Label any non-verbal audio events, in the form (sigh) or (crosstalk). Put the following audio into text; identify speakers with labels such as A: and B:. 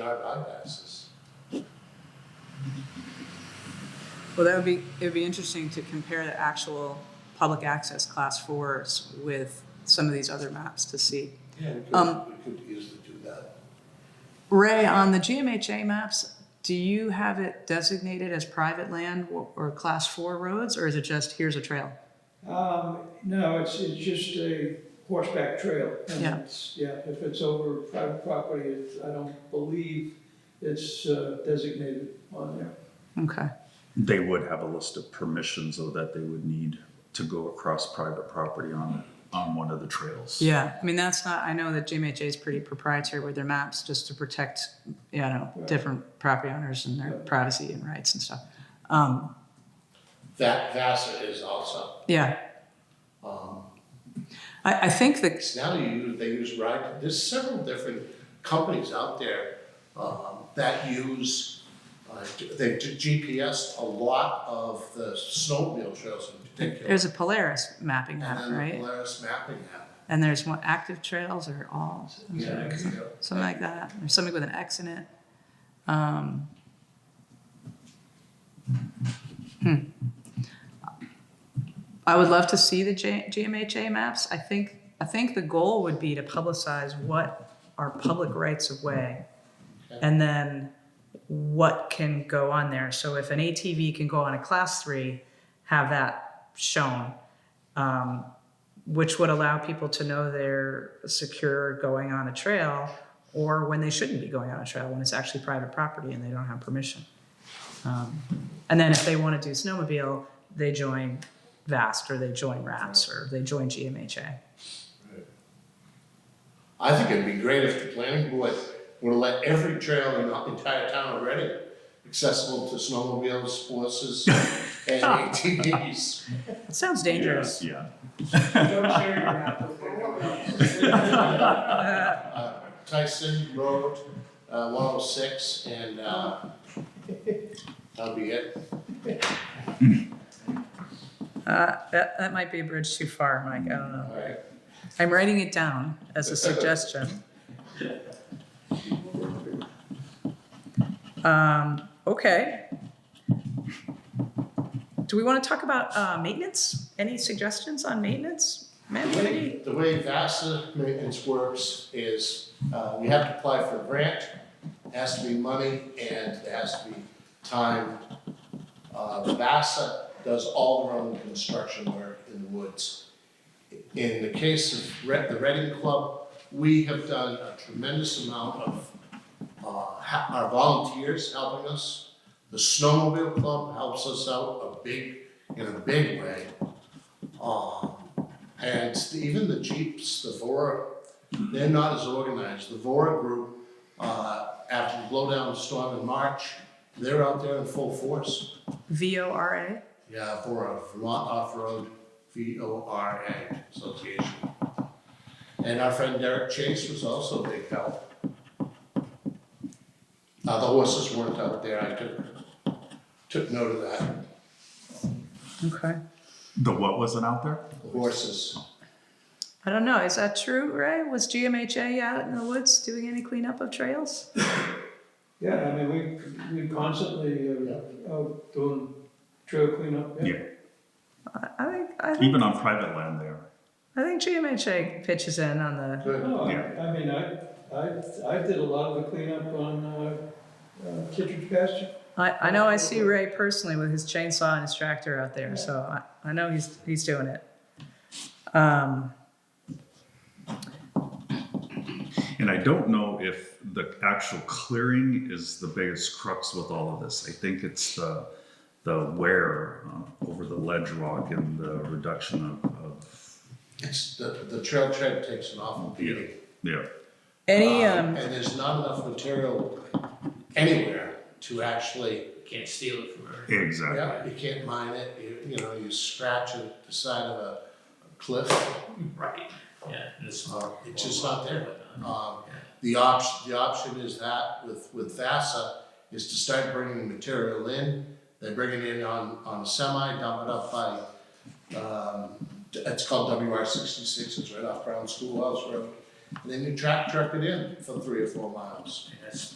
A: our bypasses.
B: Well, that would be, it would be interesting to compare the actual public access class fours with some of these other maps to see.
A: Yeah, we
B: Um,
A: could, we could easily do that.
B: Ray, on the GMHA maps, do you have it designated as private land or, or class four roads, or is it just here's a trail?
C: Um, no, it's, it's just a horseback trail. and
B: Yeah.
C: it's- Yeah, if it's over private property, it's, I don't believe it's uh, designated on there.
B: Okay,
D: They would have a list of permissions though that they would need to go across private property on, on one of the trails.
B: yeah, I mean, that's not, I know that GMHA is pretty proprietary with their maps just to protect, you know, different property owners and their privacy and rights and stuff. Um,
A: That VASA is also,
B: yeah,
A: um,
B: I, I think that
A: it's now you, use- they use ride, there's several different companies out there, um, that use, uh, they do GPS a lot of the snowmobile trails in particular.
B: there's a Polaris mapping app,
A: And then the
B: right?
A: Polaris mapping app.
B: And there's one, active trails or all,
A: Yeah, there you go.
B: something like that, or something with an X in it. Um, hmm. I would love to see the J- GMHA maps. I think, I think the goal would be to publicize what are public rights of way. And then what can go on there. So if an ATV can go on a class three, have that shown. Um, which would allow people to know they're secure going on a trail or when they shouldn't be going on a trail when it's actually private property and they don't have permission. Um, and then if they want to do snowmobile, they join VAST or they join RAPS or they join GMHA.
A: I think it'd be great if the planning board were to let every trail in the entire town of Reading accessible to snowmobiles,
B: (laughs)
A: horses, and ATVs.
B: It sounds dangerous.
D: Yeah. (laughs)
A: Uh, Tyson Road, uh, one oh six, and, uh, that'll be it.
B: Uh, that, that might be a bridge too far, Mike. I don't know.
A: Alright,
B: I'm writing it down as a suggestion. Um, okay. Do we want to talk about, uh, maintenance? Any suggestions on maintenance? Ma'am,
A: the
B: what do you-
A: way, the way VASA maintenance works is, uh, we have to apply for a grant, has to be money, and it has to be time. Uh, VASA does all their own construction work in the woods. In the case of Re- the Reading Club, we have done a tremendous amount of, uh, ha- our volunteers helping us. The snowmobile club helps us out a big, in a big way. Um, and even the Jeeps, the Vora, they're not as organized. The Vora group, uh, after the blowdown storm in March, they're out there in full force.
B: V O R A?
A: Yeah, Vora, Vermont Off-Road, V-O-R-A Association. And our friend Derek Chase was also a big help. Uh, the horses weren't out there, I took, took note of that,
B: Okay.
D: The what wasn't out there?
A: the horses.
B: I don't know. Is that true, Ray? Was GMHA out in the woods doing any cleanup of trails?
C: Yeah, I mean, we, we constantly
A: Yeah.
C: are out doing trail cleanup.
D: Yeah,
B: I, I think, I think,
D: even on private land there.
B: I think GMHA pitches in on the,
A: Good.
C: No, I,
D: Yeah.
C: I mean, I, I, I did a lot of the cleanup on, uh, uh, Kittredge pasture.
B: I, I know I see Ray personally with his chainsaw and his tractor out there, so I, I know he's, he's doing it. Um,
D: And I don't know if the actual clearing is the biggest crux with all of this. I think it's the, the wear uh, over the ledge rock and the reduction of, of,
A: It's, the, the trail tread takes an awful beating.
D: yeah.
B: any,
A: Uh,
B: um,
A: And there's not enough material anywhere to actually,
E: Can't steal it from her.
D: Exactly.
A: yeah, you can't mine it, you, you know, you scratch it, the side of a cliff.
E: Right. Yeah. and It's,
A: Uh, it's just not there. Um,
E: Yeah.
A: the option, the option is that with, with VASA, is to start bringing material in. They bring it in on, on a semi, dump it up by, um, it's called WR sixty-six, it's right off Brown Schoolhouse Road. And then you track, truck it in for three or four miles.
E: And that's